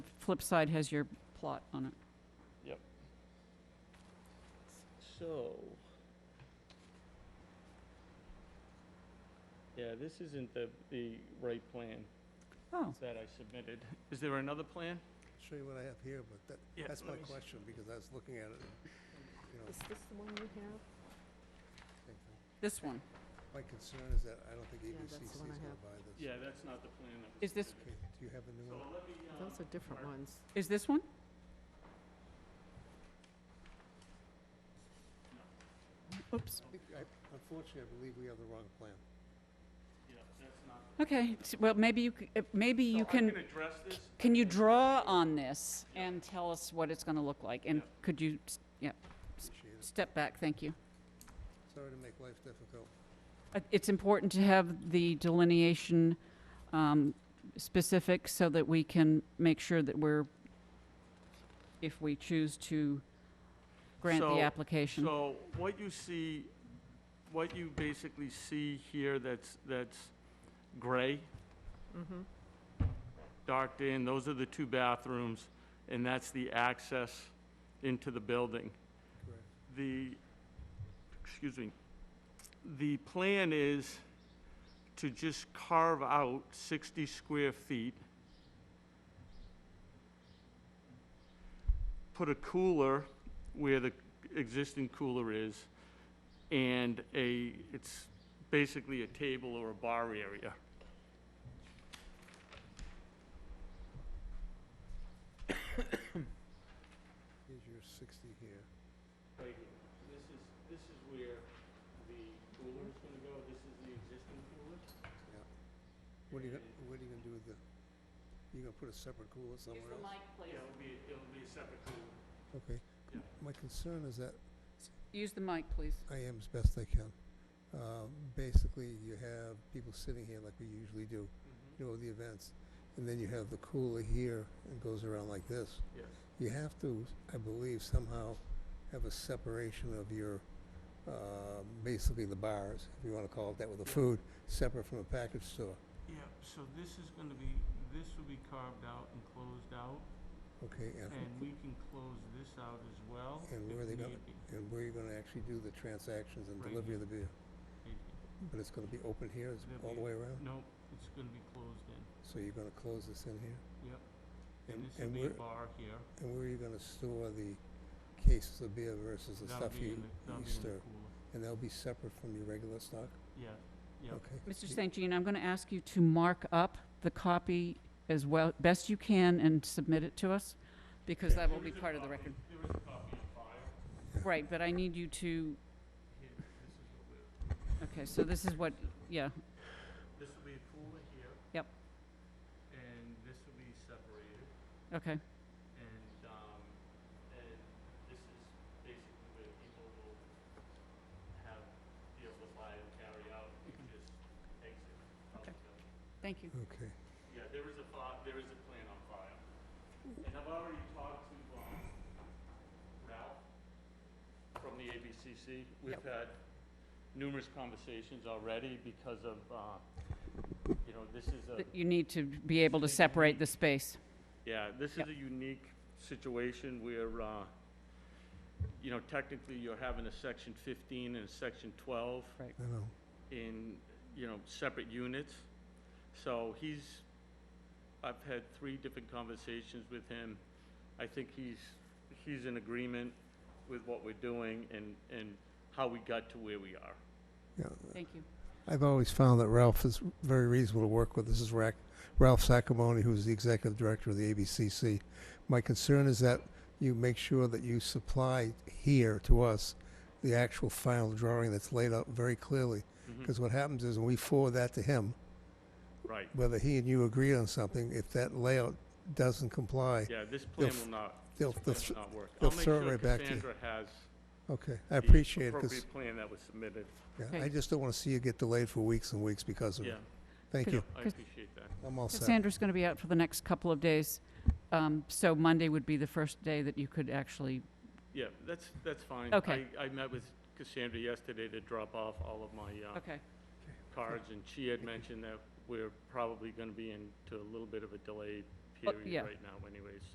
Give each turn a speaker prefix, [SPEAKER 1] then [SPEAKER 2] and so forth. [SPEAKER 1] flip side has your plot on it.
[SPEAKER 2] So. Yeah, this isn't the, the right plan
[SPEAKER 1] Oh,
[SPEAKER 2] that I submitted. Is there another plan?
[SPEAKER 3] Show you what I have here, but
[SPEAKER 2] Yeah,
[SPEAKER 3] that, that's my
[SPEAKER 2] let me see.
[SPEAKER 3] question, because I was looking at it, you know,
[SPEAKER 4] Is this the one you have?
[SPEAKER 3] same thing.
[SPEAKER 1] this one.
[SPEAKER 3] My concern is that I don't think
[SPEAKER 4] Yeah,
[SPEAKER 3] ABCC
[SPEAKER 4] that's
[SPEAKER 3] is
[SPEAKER 4] the one I
[SPEAKER 3] gonna
[SPEAKER 4] have.
[SPEAKER 3] buy this.
[SPEAKER 2] Yeah, that's not the plan that was.
[SPEAKER 1] Is this,
[SPEAKER 3] Okay, do you have a
[SPEAKER 2] So
[SPEAKER 3] new one?
[SPEAKER 2] let me, um,
[SPEAKER 4] Those are different
[SPEAKER 2] Mark.
[SPEAKER 4] ones.
[SPEAKER 1] is this one? Oops.
[SPEAKER 3] I- Unfortunately, I believe we have the wrong plan.
[SPEAKER 2] yeah, that's not.
[SPEAKER 1] Okay, s- well, maybe you, c- uh, maybe
[SPEAKER 2] So
[SPEAKER 1] you
[SPEAKER 2] I
[SPEAKER 1] can,
[SPEAKER 2] can address this.
[SPEAKER 1] can you draw on this and tell us what it's gonna look like? And
[SPEAKER 2] Yeah.
[SPEAKER 1] could you, s- yeah,
[SPEAKER 3] Appreciate it.
[SPEAKER 1] step back, thank you.
[SPEAKER 3] Sorry to make life difficult.
[SPEAKER 1] Uh, It's important to have the delineation um, specific so that we can make sure that we're, if we choose to grant
[SPEAKER 2] So-
[SPEAKER 1] the application.
[SPEAKER 2] So what you see, what you basically see here that's, that's gray,
[SPEAKER 4] Mm-hmm.
[SPEAKER 2] darked in, those are the two bathrooms, and that's the access into the building.
[SPEAKER 3] Correct.
[SPEAKER 2] the, excuse me, the plan is to just carve out 60 square feet, put a cooler where the existing cooler is, and a, it's basically a table or a bar area.
[SPEAKER 3] Here's your sixty here.
[SPEAKER 2] Right here. This is, this is where the cooler is going to go. This is the existing cooler.
[SPEAKER 3] What are you, gonna- what are you gonna do with the, you gonna put a separate cooler somewhere else?
[SPEAKER 2] Yeah, it'll be, it'll be a separate cooler.
[SPEAKER 3] Okay.
[SPEAKER 2] Yeah.
[SPEAKER 3] My concern is that
[SPEAKER 1] Use the mic, please.
[SPEAKER 3] I am as best I can. Uh, Basically, you have people sitting here like we usually do,
[SPEAKER 2] Mm-hmm.
[SPEAKER 3] you know, the events. And then you have the cooler here and goes around like this.
[SPEAKER 2] Yes.
[SPEAKER 3] You have to, I believe, somehow have a separation of your, uh, basically the bars, if you want to call it that, with the
[SPEAKER 2] Yeah.
[SPEAKER 3] food, separate from a package store.
[SPEAKER 2] Yeah, so this is gonna be, this will be carved out and closed out,
[SPEAKER 3] Okay, and,
[SPEAKER 2] and we can close this out as well.
[SPEAKER 3] And
[SPEAKER 2] if
[SPEAKER 3] where are they gonna-
[SPEAKER 2] need be.
[SPEAKER 3] and where you're going to actually do the transactions and
[SPEAKER 2] Right
[SPEAKER 3] delivery of the beer?
[SPEAKER 2] It-
[SPEAKER 3] But it's going to be open here, it's
[SPEAKER 2] There'll
[SPEAKER 3] all the
[SPEAKER 2] be-
[SPEAKER 3] way around?
[SPEAKER 2] Nope, it's gonna be closed in,
[SPEAKER 3] So you're going to close this in here?
[SPEAKER 2] yep.
[SPEAKER 3] And-
[SPEAKER 2] And this will
[SPEAKER 3] and
[SPEAKER 2] be a
[SPEAKER 3] where-
[SPEAKER 2] bar here.
[SPEAKER 3] And where are you going to store the cases of beer versus the
[SPEAKER 2] That'll
[SPEAKER 3] stuff
[SPEAKER 2] be
[SPEAKER 3] you,
[SPEAKER 2] in the- that'll
[SPEAKER 3] you
[SPEAKER 2] be in the
[SPEAKER 3] stir?
[SPEAKER 2] cooler.
[SPEAKER 3] And they'll be separate from your regular stock?
[SPEAKER 2] Yeah, yeah.
[SPEAKER 3] Okay.
[SPEAKER 1] Mr.
[SPEAKER 3] You-
[SPEAKER 1] St. Jean, I'm going to ask you to mark up the copy as well, best you can, and submit it to us, because that will be part of the record.
[SPEAKER 2] There is a copy on file.
[SPEAKER 1] Right, but I need you to,
[SPEAKER 2] Here, this is what we're,
[SPEAKER 1] okay, so this is what, yeah,
[SPEAKER 2] this will be a cooler here.
[SPEAKER 1] Yep.
[SPEAKER 2] And this will be separated,
[SPEAKER 1] okay.
[SPEAKER 2] and, um, and this is basically where people will have, be able to buy and carry out, you can just exit. out
[SPEAKER 1] Okay.
[SPEAKER 2] the building.
[SPEAKER 1] Thank you.
[SPEAKER 3] Okay.
[SPEAKER 2] Yeah, there is a fi, there is a plan on file. And I've already talked to, um, Ralph from the ABCC. We've had numerous conversations already because of, uh, you know, this is a,
[SPEAKER 1] But You need to be able to separate the space.
[SPEAKER 2] yeah, this is
[SPEAKER 1] Yep.
[SPEAKER 2] a unique situation where, uh, you know, technically you're having a section fifteen and a section twelve
[SPEAKER 3] I know.
[SPEAKER 2] in, you know, separate units. So he's, I've had three different conversations with him. I think he's, he's in agreement with what we're doing and, and how we got to where we are.
[SPEAKER 3] Yeah,
[SPEAKER 1] Thank you.
[SPEAKER 3] I've always found that Ralph is very reasonable to work with. This is Rac- Ralph Sacamone, who's the executive director of the ABCC. My concern is that you make sure that you supply here to us the actual final drawing that's laid out very clearly.
[SPEAKER 2] Mm-hmm.
[SPEAKER 3] Because what happens is when we forward that to him,
[SPEAKER 2] Right,
[SPEAKER 3] whether he and you agree on something, if that layout doesn't comply,
[SPEAKER 2] yeah, this plan
[SPEAKER 3] They'll f-
[SPEAKER 2] will not,
[SPEAKER 3] they'll,
[SPEAKER 2] this
[SPEAKER 3] they'll,
[SPEAKER 2] plan will not work.
[SPEAKER 3] they'll throw it right back to you.
[SPEAKER 2] I'll make sure Cassandra has
[SPEAKER 3] okay, I
[SPEAKER 2] the
[SPEAKER 3] appreciate it, 'cause,
[SPEAKER 2] appropriate plan that was submitted.
[SPEAKER 3] yeah, I just don't wanna see you get delayed for weeks and weeks because of
[SPEAKER 2] Yeah,
[SPEAKER 3] it. Thank
[SPEAKER 1] Could-
[SPEAKER 3] you,
[SPEAKER 2] I
[SPEAKER 1] Cas-
[SPEAKER 2] appreciate that.
[SPEAKER 3] I'm all set.
[SPEAKER 1] Cassandra's going to be out for the next couple of days, um, so Monday would be the first day that you could actually,
[SPEAKER 2] Yeah, that's, that's fine.
[SPEAKER 1] Okay.
[SPEAKER 2] I, I met with Cassandra yesterday to drop off all of my, uh,
[SPEAKER 1] okay,
[SPEAKER 2] cards, and she had mentioned that we're probably gonna be into a little bit of a delayed
[SPEAKER 1] Oh,
[SPEAKER 2] period
[SPEAKER 1] yeah.
[SPEAKER 2] right now anyways.